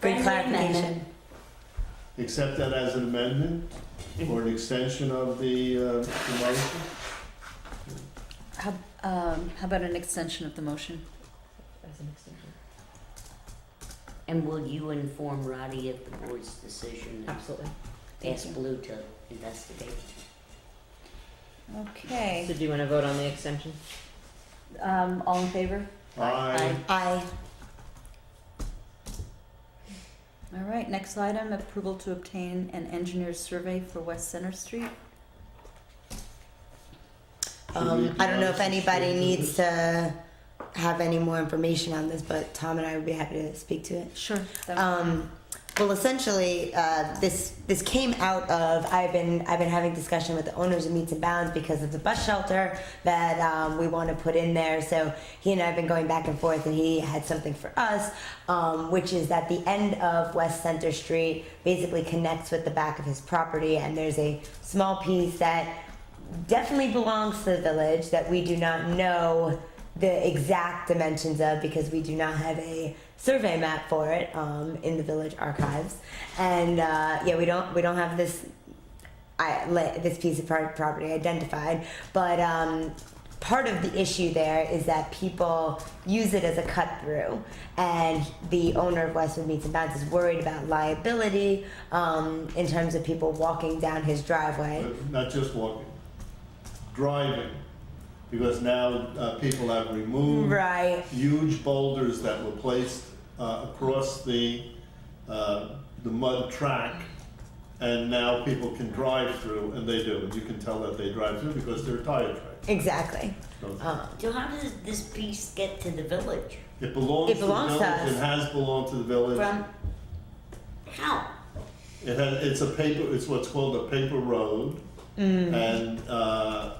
Good clarification. Accept that as an amendment or an extension of the, uh, the motion? How, um, how about an extension of the motion? As an extension. And will you inform Roddy of the board's decision? and Absolutely. Ask Blue to investigate? Okay, So do you wanna vote on the extension? um, all in favor? Aye. Aye. All right, next item, approval to obtain an engineer's survey for West Center Street. Um, I don't know if anybody needs to have any more information on this, but Tom and I would be happy to speak to it. Sure. Um, well, essentially, uh, this this came out of I've been I've been having discussion with the owners of Meats and Bounds because of the bus shelter that um, we want to put in there. So he and I have been going back and forth, and he had something for us, um, which is that the end of West Center Street basically connects with the back of his property, and there's a small piece that definitely belongs to the village that we do not know the exact dimensions of because we do not have a survey map for it um, in the village archives and uh, yeah we don't we don't have this I, li- this piece of pro- property identified but um, part of the issue there is that people use it as a cut through and the owner of westwood meats and bounds is worried about liability um, in terms of people walking down his driveway But Not just walking, driving, because now uh, people have removed right huge boulders that were placed uh, across the, uh, the mud track. And now people can drive through, and they do, and you can tell that they drive through because they're tire tracks. Exactly. Those- Um, Oh, So how does this piece get to the village? It belongs It to the belongs to village, us. it has belonged to the village. from How? It has, it's a paper, it's what's called a paper road. And uh,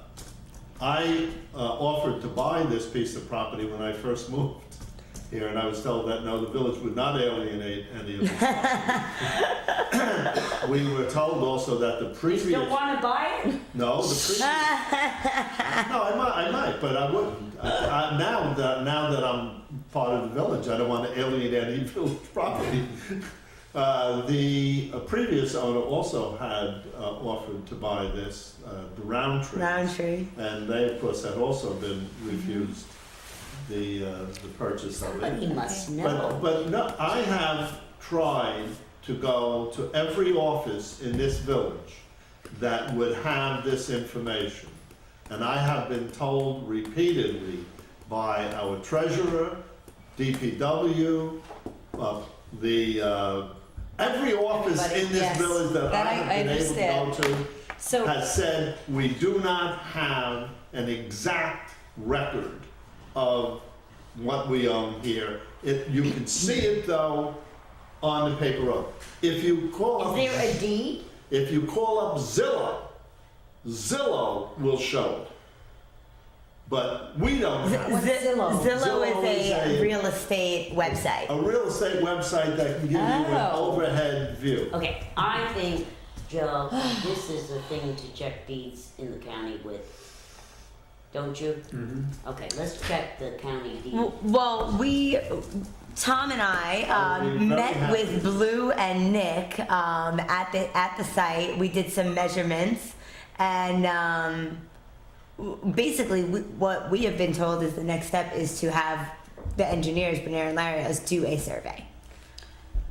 I uh, offered to buy this piece of property when I first moved here, and I was told that no, the village would not alienate any of this. property. We were told also that the previous, Don't wanna buy it? no, the previous. No, I might, I might, but I wouldn't. I, I, now that now that I'm part of the village, I don't want to alienate any village property. Uh, the uh, previous owner also had uh, offered to buy this, uh, the Roundtree, Roundtree. and they of course had also been refused the uh, the purchase of But it. he must But, know. but no, I have tried to go to every office in this village that would have this information. And I have been told repeatedly by our treasurer, DPW, uh, the, uh, every office in Everybody, this yes. village that That I I- I have been able to go understand. to So, has said we do not have an exact record of what we own here. It, you can see it though on the paper road. If you call Is up, there a deed? if you call up Zillow, Zillow will show it. But we don't have it. Zi- Zillow. Zillow is is a a- real estate website. a real estate website that can give you an Oh. overhead view. Okay, I think, Joe, this is a thing to check deeds in the county with. Don't you? Okay, let's check the county deed. Well, we, Tom and I, we're um, very met happy. with Blue and Nick um, at the at the site. We did some measurements, and um, w- basically, we, what we have been told is the next step is to have the engineers, Benair and Larios, do a survey,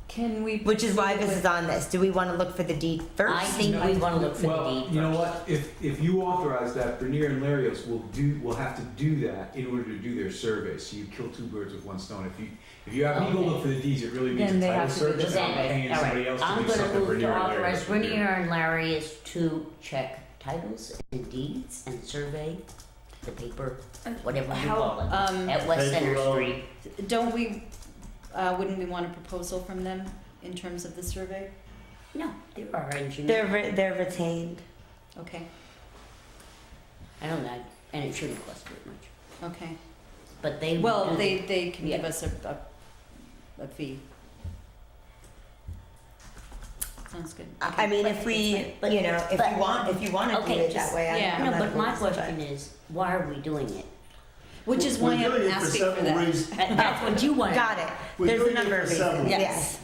can we? which is why proceed this with- is on this. Do we want to look for the deed first? I think we wanna look for the Well, deed first. you know what, if, if you authorize that, Bernier and Larios will do, will have to do that in order to do their survey, so you kill two birds with one stone. If you, if you have me go look for the deeds, it really means Then a they title have to do the search, and I'm survey. paying All somebody right, else to I'm do gonna something move to Bernier and Larios. authorize will do. Renier and Larry is to check titles and deeds and survey the paper, whatever you How, call um, it, at West Paper Center road. Street. Don't we, uh, wouldn't we want a proposal from them in terms of the survey? No, there are they're engineers. re- they're retained. Okay, I don't know, and it shouldn't cost very much, okay. but they. Well, will- Mm-hmm. they, they can give Yeah. us a, a, a fee. Sounds good. I I mean, if we, you know, if but- you want, if you want to okay, do it just- that way, I'm- yeah. I'm No, not but my opposed, question is, why are we doing it? Which is why We're doing I'm it for asking for several that. reasons. And That's what you want. Got it. We're There's doing a it number for of several reasons. Yes. Yes.